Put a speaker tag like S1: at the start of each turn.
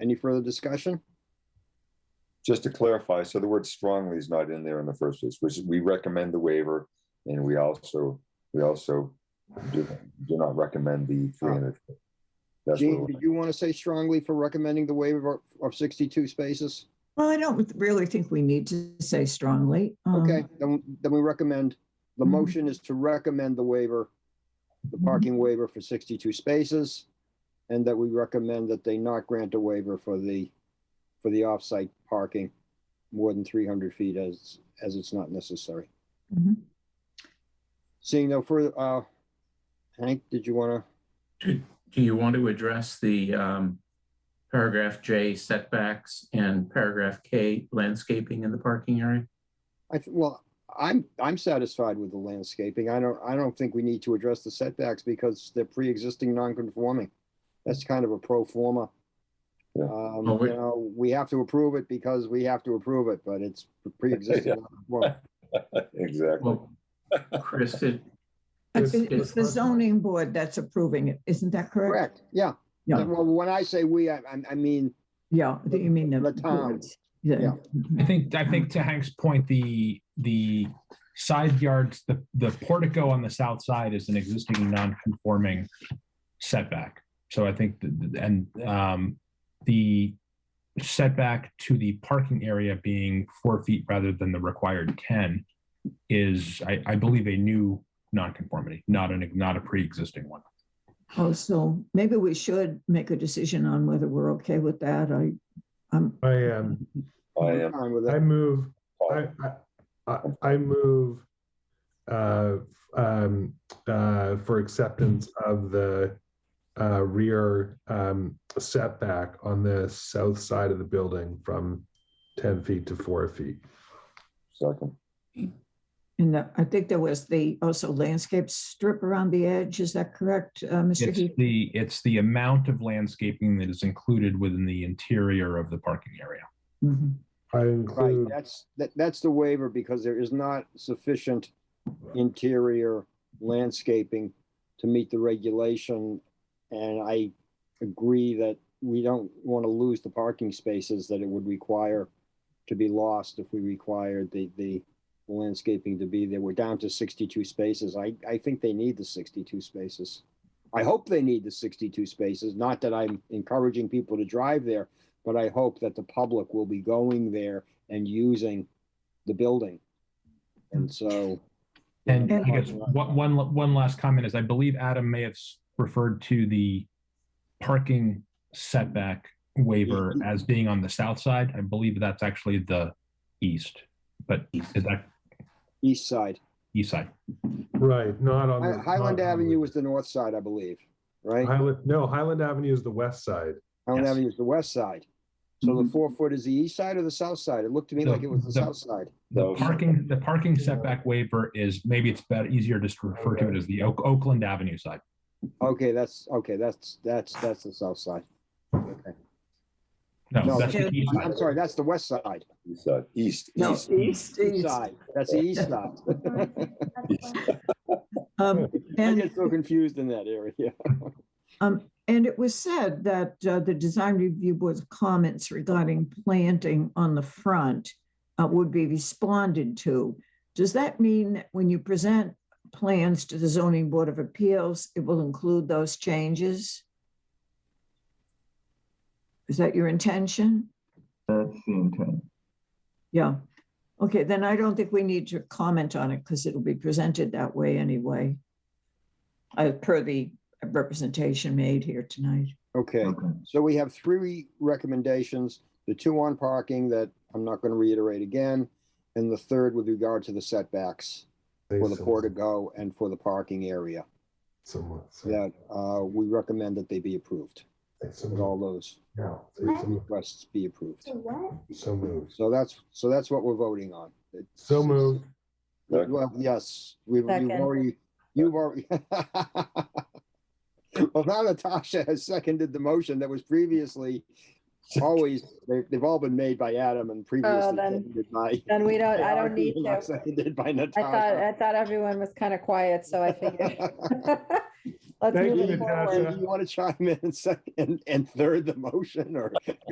S1: Any further discussion?
S2: Just to clarify, so the word strongly is not in there in the first place, which is we recommend the waiver and we also, we also do do not recommend the three hundred.
S1: Oh.
S2: That's
S1: Gene,
S2: what
S1: did you want to say strongly for recommending the waiver of- of 62 spaces?
S3: Well, I don't really think we need to say strongly. um,
S1: Okay, then, then we recommend, the
S3: Mhm.
S1: motion is to recommend the waiver, the parking waiver for 62 spaces, and that we recommend that they not grant a waiver for the, for the off-site parking more than 300 feet as, as it's not necessary.
S3: mhm.
S1: Seeing no further, uh, Hank, did you want to?
S4: Do do you want to address the um, paragraph J setbacks and paragraph K landscaping in the parking area?
S1: I, th- well, I'm, I'm satisfied with the landscaping. I don't, I don't think we need to address the setbacks because they're pre-existing non-conforming. That's kind of a pro forma.
S2: Yeah.
S1: Um,
S4: Well,
S1: you
S4: we-
S1: know, we have to approve it because we have to approve it, but it's
S2: Yeah.
S1: pre-existing. non-conforming.
S2: Exactly.
S4: Well, Chris, it-
S3: It's
S4: It's-
S3: it's the zoning board that's approving it, isn't that correct?
S1: Correct, yeah.
S3: Yeah.
S1: Well, when I say we, I, I- I mean,
S3: Yeah, do you mean the?
S1: The town.
S3: Yeah.
S5: I think, I think to Hank's point, the, the side yards, the, the portico on the south side is an existing non-conforming setback. So I think, th- th- and, um, the setback to the parking area being four feet rather than the required ten is, I, I believe, a new nonconformity, not an, not a pre-existing one.
S3: Oh, so maybe we should make a decision on whether we're okay with that. I, um, I'm,
S6: I am,
S2: I
S1: I'm
S2: am,
S1: fine with
S6: I
S1: it.
S6: move, I, I, I- I move uh, um, uh, for acceptance of the uh, rear um, setback on the south side of the building from ten feet to four feet.
S2: second,
S3: and the- I think there was the also landscape strip around the edge. Is that correct, uh, Mr.
S5: It's
S3: Heath?
S5: the, it's the amount of landscaping that is included within the interior of the parking area.
S3: Mhm.
S6: I
S1: Right,
S6: include,
S1: that's, that, that's the waiver because there is not sufficient interior landscaping to meet the regulation. And I agree that we don't want to lose the parking spaces that it would require to be lost if we required the, the landscaping to be there. We're down to sixty-two spaces. I, I think they need the sixty-two spaces. I hope they need the sixty-two spaces, not that I'm encouraging people to drive there, but I hope that the public will be going there and using the building. And so.
S5: And
S3: And-
S5: I guess one, one, one last comment is I believe Adam may have s- referred to the parking setback waiver as being on the south side. I believe that's actually the east, but is that
S1: East side.
S5: east side?
S6: right, not on.
S1: Hi-
S6: the
S1: Highland
S6: not on
S1: Avenue
S6: the-
S1: is the north side, I believe, right?
S6: Highland, no, Highland Avenue is the west side.
S1: Highland
S5: Yes. Mm-hmm.
S1: Avenue is the west side. So the
S3: Mhm.
S1: four foot is the east side or the south side? It looked to me
S5: The-
S1: like it was the
S5: the-
S1: south side.
S5: The
S2: No.
S5: parking, the parking setback waiver is, maybe it's better, easier just to refer to it as the Oak- Oakland Avenue side.
S1: Okay, that's, okay, that's, that's, that's the south side. Okay.
S5: No,
S1: No,
S5: that's the east side.
S1: I'm sorry, that's the west side.
S2: east side, east,
S3: No,
S2: east.
S3: east,
S1: East
S3: east.
S1: side. That's the east side.
S2: east.
S3: Um,
S1: I
S3: and-
S1: get so confused in that area.
S3: Um, and it was said that uh, the design review board's comments regarding planting on the front uh, would be responded to. Does that mean that when you present plans to the zoning board of appeals, it will include those changes? Is that your intention?
S7: That's the intent.
S3: Yeah. Okay, then I don't think we need to comment on it because it'll be presented that way anyway. Uh, per the representation made here tonight.
S1: Okay.
S7: Okay.
S1: So we have three recommendations, the two on parking that I'm not going to reiterate again, and the third with regard to the setbacks for the portico and for the parking area,
S6: Somewhat.
S1: that uh, we recommend that they be approved, that all those requests be approved.
S6: So moved.
S1: So that's, so that's what we're voting on. It's-
S6: So moved.
S1: Well, yes, we've you've
S8: Second.
S1: already, you've already. Well, now Natasha has seconded the motion that was previously always, they've, they've all been made by Adam and previously
S8: Oh, then-
S1: seconded by.
S8: Then we don't, I don't need
S1: Not
S8: to.
S1: Seconded by
S8: I thought,
S1: Natasha.
S8: I thought everyone was kind of quiet, so I figured. Let's
S6: Thank
S8: move
S6: you,
S8: it forward.
S6: Natasha.
S1: Do you want to chime in and second, and third the motion or?